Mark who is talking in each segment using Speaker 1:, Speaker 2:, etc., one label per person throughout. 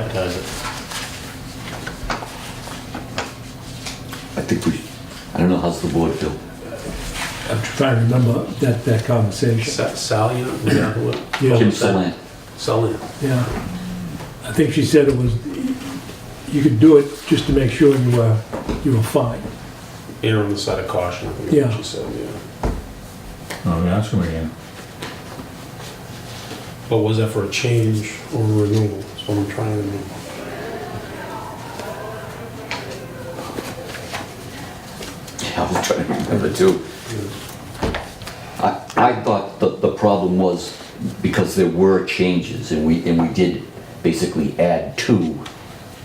Speaker 1: advertise it.
Speaker 2: I think we, I don't know, how's the board feel?
Speaker 3: I'm trying to remember that, that conversation.
Speaker 4: Sa- Sally, uh, was that who it-
Speaker 3: Yeah,
Speaker 2: Kim Salant.
Speaker 4: Sally.
Speaker 3: yeah. I think she said it was, you could do it just to make sure you were, you were fine.
Speaker 4: You know, on the side of caution, I think
Speaker 3: Yeah.
Speaker 4: she said, yeah.
Speaker 5: Oh, yeah, ask him again.
Speaker 4: But was that for a change or a renewal? That's what I'm trying to remember.
Speaker 2: Yeah, I was trying to remember too. I, I thought the, the problem was because there were changes and we, and we did basically add to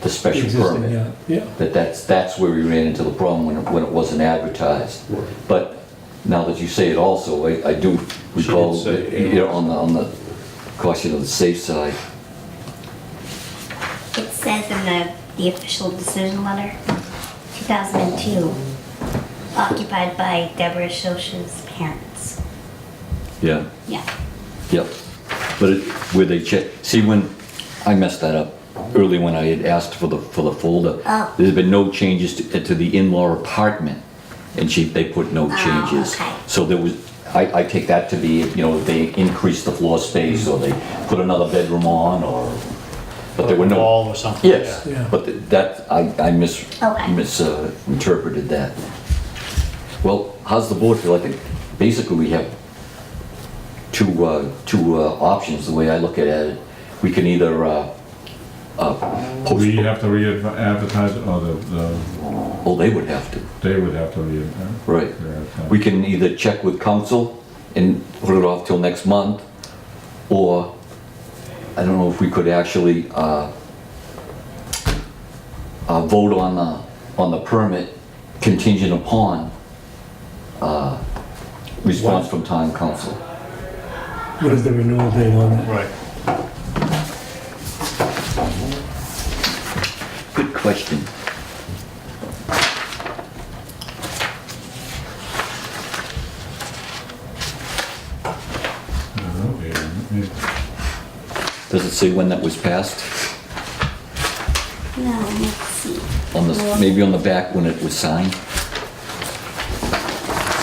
Speaker 2: the special
Speaker 3: Existing,
Speaker 2: permit.
Speaker 3: yeah, yeah.
Speaker 2: That that's, that's where we ran into the problem when it, when it wasn't advertised.
Speaker 4: Right.
Speaker 2: But now that you say it also, I, I do
Speaker 4: did
Speaker 2: recall,
Speaker 4: say
Speaker 2: that,
Speaker 4: it.
Speaker 2: you know, on the, on the caution of the safe side.
Speaker 6: It says in the, the official decision letter, 2002, occupied by Deborah Shosha's parents.
Speaker 2: Yeah.
Speaker 6: Yeah.
Speaker 2: Yep, but it, where they check, see when, I messed that up early when I had asked for the, for the folder.
Speaker 6: Oh.
Speaker 2: There's been no changes to, to the in-law apartment, and she, they put no
Speaker 6: Oh,
Speaker 2: changes.
Speaker 6: okay.
Speaker 2: So there was, I, I take that to be, you know, they increased the floor space, or they put another bedroom on, or, but there were no.
Speaker 1: Wall or something.
Speaker 2: Yes,
Speaker 3: Yeah.
Speaker 2: but th- that, I, I mis,
Speaker 6: Okay.
Speaker 2: misinterpreted that. Well, how's the board feel? I think basically we have two, uh, two uh, options, the way I look at it. We can either, uh, uh, post,
Speaker 5: We have to re-advertise, it, or the, the,
Speaker 2: oh, they would have to,
Speaker 5: they would have to uh, re-advertise.
Speaker 2: right. We can either check with council and put it off till next month, or I don't know if we could actually, uh, uh, vote on the, on the permit contingent upon, uh, response from town council.
Speaker 3: What is the renewal date on that?
Speaker 1: Right.
Speaker 2: Good question.
Speaker 5: Uh,
Speaker 2: Does it say when that was passed?
Speaker 6: No, let's see.
Speaker 2: On the,
Speaker 6: Well-
Speaker 2: maybe on the back when it was signed?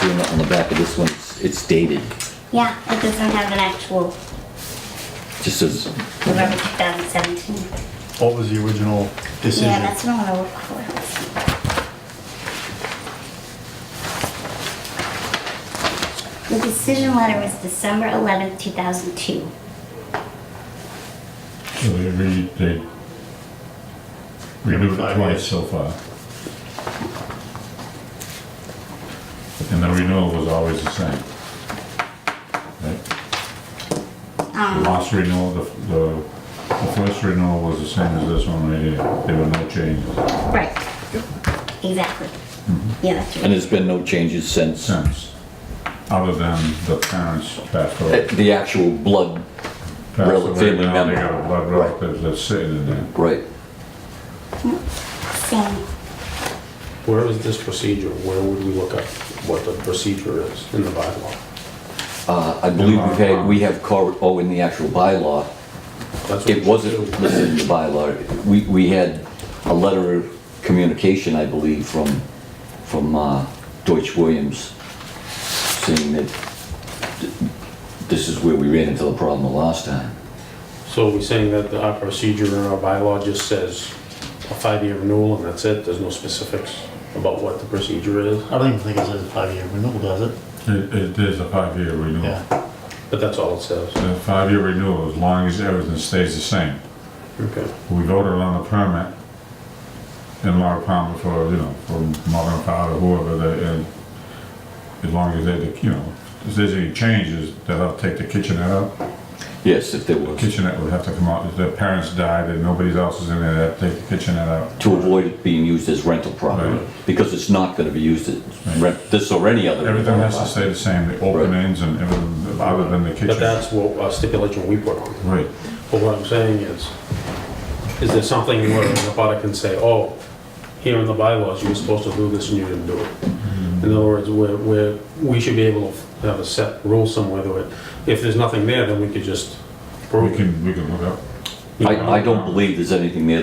Speaker 2: See, on the, on the back of this one, it's- it's dated,
Speaker 6: Yeah, it doesn't have an actual
Speaker 2: just says
Speaker 6: November 2017.
Speaker 1: What was the original decision?
Speaker 6: Yeah, that's what I want to look for. Let's see. The decision letter was December 11th, 2002.
Speaker 5: So they re, they renewed it
Speaker 1: Five
Speaker 5: twice
Speaker 1: years.
Speaker 5: so far. And the renewal was always the same. Right? The
Speaker 6: Um,
Speaker 5: last renewal, the, the, the first renewal was the same as this one right here, there were no changes
Speaker 6: Right. Exactly. Yeah, that's
Speaker 2: And
Speaker 6: right.
Speaker 2: there's been no changes since. Uh,
Speaker 5: since, other than the parents passed away.
Speaker 2: The actual blood,
Speaker 5: Passed
Speaker 2: rel-
Speaker 5: away,
Speaker 2: family
Speaker 5: now They
Speaker 2: member.
Speaker 5: got a blood relative that's sitting in there.
Speaker 2: right,
Speaker 6: Same.
Speaker 4: Where is this procedure? Where would we look up what the procedure is in the bylaw?
Speaker 2: uh, I believe we've had, we have, cor- oh, in the actual bylaw,
Speaker 4: That's what
Speaker 2: it wasn't
Speaker 4: we should do.
Speaker 2: listed in the bylaw. We, we had a letter of communication, I believe, from, from uh, Deutsch Williams saying that th- this is where we ran into the problem the last time.
Speaker 4: So are we saying that the- our procedure in our bylaw just says a five-year renewal and that's it? There's no specifics about what the procedure is?
Speaker 1: I don't even think it says five-year renewal, does it?
Speaker 5: It, it is a five-year renewal.
Speaker 1: Yeah.
Speaker 4: But that's all it says.
Speaker 5: A five-year renewal, as long as everything stays the same.
Speaker 4: Okay.
Speaker 5: We voted on the permit in Laura Palmer for, you know, for Morgan Fowler, whoever, they- and as long as they, you know, if there's any changes, that I'll take the kitchenette out.
Speaker 2: Yes, if there was.
Speaker 5: Kitchenette would have to come out, if their parents died and nobody else is in there, they'd have to take the kitchenette out.
Speaker 2: to avoid it being used as rental property,
Speaker 5: Right.
Speaker 2: because it's not gonna be used as rent, this or any other.
Speaker 5: Everything has to stay the same, the openings and everything, other than the
Speaker 4: But
Speaker 5: kitchen.
Speaker 4: that's what uh, stipulation we put on.
Speaker 5: Right.
Speaker 4: But what I'm saying is, is there something where an abutter can say, oh, here in the bylaws, you were supposed to do this and you didn't do it? In other words, where, where, we should be able to have a set rule somewhere that, if there's nothing there, then we could just
Speaker 5: We
Speaker 4: prove it.
Speaker 5: can, we can look up.
Speaker 2: I, I don't believe there's anything there